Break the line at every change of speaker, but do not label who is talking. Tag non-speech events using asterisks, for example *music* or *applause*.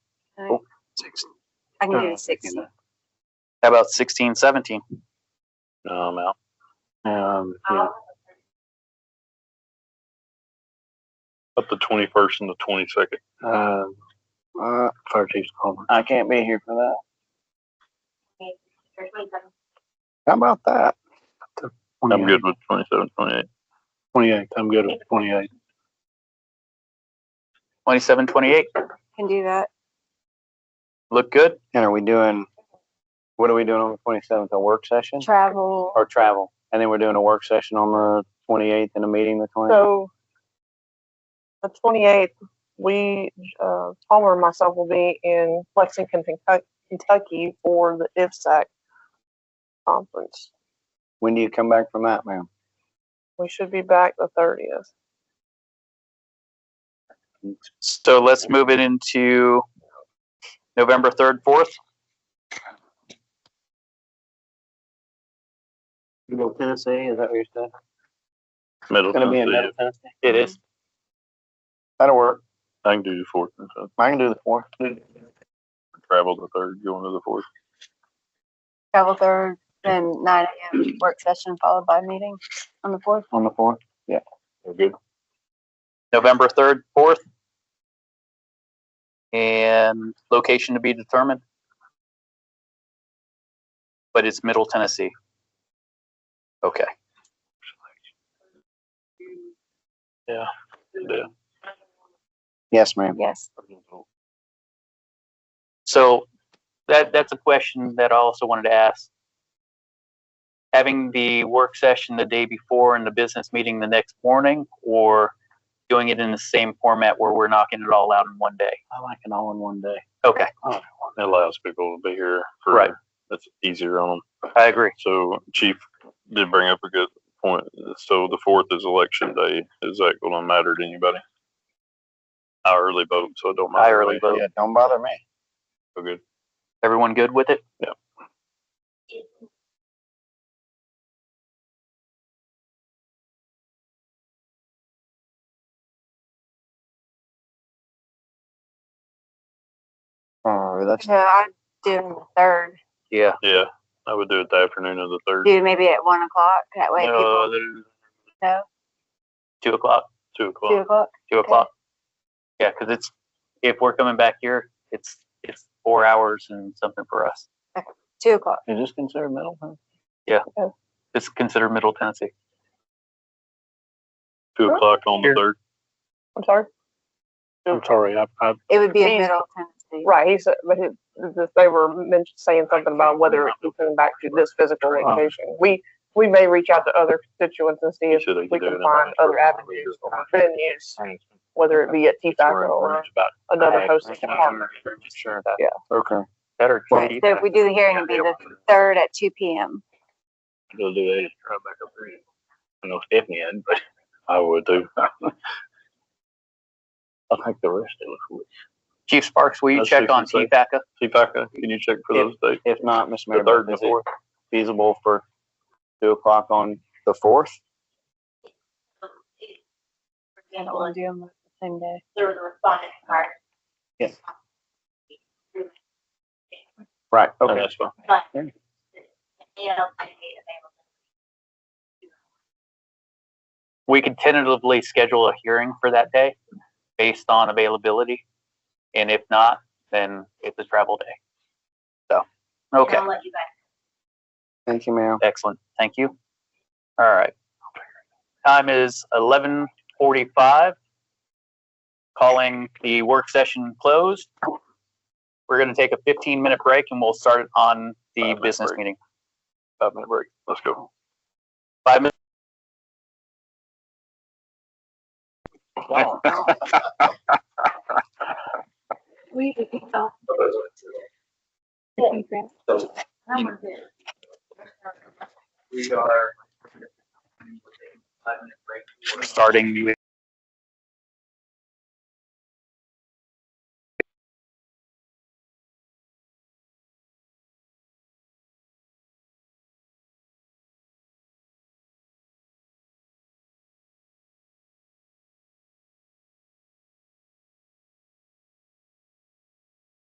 Oh, I can
Uh,
do six.
you know. How about sixteen, seventeen?
No, I'm out.
Um, yeah,
Um,
Up the twenty first and the twenty second.
um,
Uh,
fire chief's calling.
I can't be here for that.
or 27.
How about that?
I'm good with 27, 28.
Twenty-eight, I'm good with twenty-eight.
Twenty-seven, twenty-eight.
Can do that.
Look good.
And are we doing? What are we doing on the twenty seventh? A work session
Travel.
or travel? And then we're doing a work session on the twenty eighth and a meeting the twenty.
So the twenty-eighth, we, uh, Palmer and myself will be in Lexington, Kentuck- Kentucky for the IFSAC conference.
when do you come back from that, ma'am?
We should be back the thirtieth.
So let's move it into November third, fourth.
You go Tennessee? Is that what you said?
Middle
It's gonna be in
Tennessee.
Middle Tennessee.
It is.
That'll work.
I can do the fourth and fifth.
I can do the fourth.
Travel the third, go into the fourth.
Travel third, then nine AM work session followed by meeting on the fourth.
On the fourth.
We're good. November third, fourth. And location to be determined. But it's Middle Tennessee. Okay.
Yes, ma'am.
Yes.
So that that's a question that I also wanted to ask. Having the work session the day before and the business meeting the next morning, or doing it in the same format where we're knocking it all out in one day?
I like it all in one day.
Okay,
It allows people to be here for
Right.
That's easier on
I agree.
them. So Chief did bring up a good point. So the fourth is election day. Is that going to matter to anybody? I early vote, so it don't matter.
I
to
early
me.
vote.
Yeah, don't bother me.
So good.
Everyone good with it?
Yeah.
Oh, that's
So I do on the third,
Yeah.
Yeah, I would do it the afternoon of the third. Uh,
do maybe at one o'clock. That way
No,
people
there's
know,
Two o'clock,
two
two
o'clock.
o'clock.
two o'clock. Yeah, because it's, if we're coming back here, it's, it's four hours and something for us.
Two o'clock.
is this considered middle? Huh?
It's considered Middle Tennessee.
Two o'clock on the
Here.
third.
I'm sorry?
I'm sorry, I, I,
It would be in
Means-
middle Tennessee.
Right, he said, but it, th- they were men- saying something about whether we come back to this physical location. We, we may reach out to other constituents and see
You
if
said I could
we
do it
can
in
find
Orangeburg.
other avenues, for our venues, whether it be at T-Factor or another hosting department.
Sure.
Yeah.
Okay.
Better.
Right, So if we do the hearing, it'd be the third at two PM.
Go do that. *laughs* Try back up there. I know Stephanie had, but *laughs* I would too. I think the rest of us would.
Chief Sparks, will you
That's
check on
safe to say.
TPACA?
See, Paca, can you check for those dates?
If not, Miss
The
Mayor,
third and the
is it
fourth?
feasible for two o'clock on the fourth?
I don't wanna do them the same day.
Right.
Oh,
Okay.
That's
Um,
fine.
We could tentatively schedule a hearing for that day based on availability. And if not, then it's a travel day. So, okay,
Thank you, ma'am.
excellent. Thank you. All right. Time is eleven forty-five. Calling the work session closed. We're gonna take a fifteen-minute break and we'll start on the
Five-minute
business
break.
meeting.
Five minute break. Let's go.
Five minutes.
*laughs*
starting the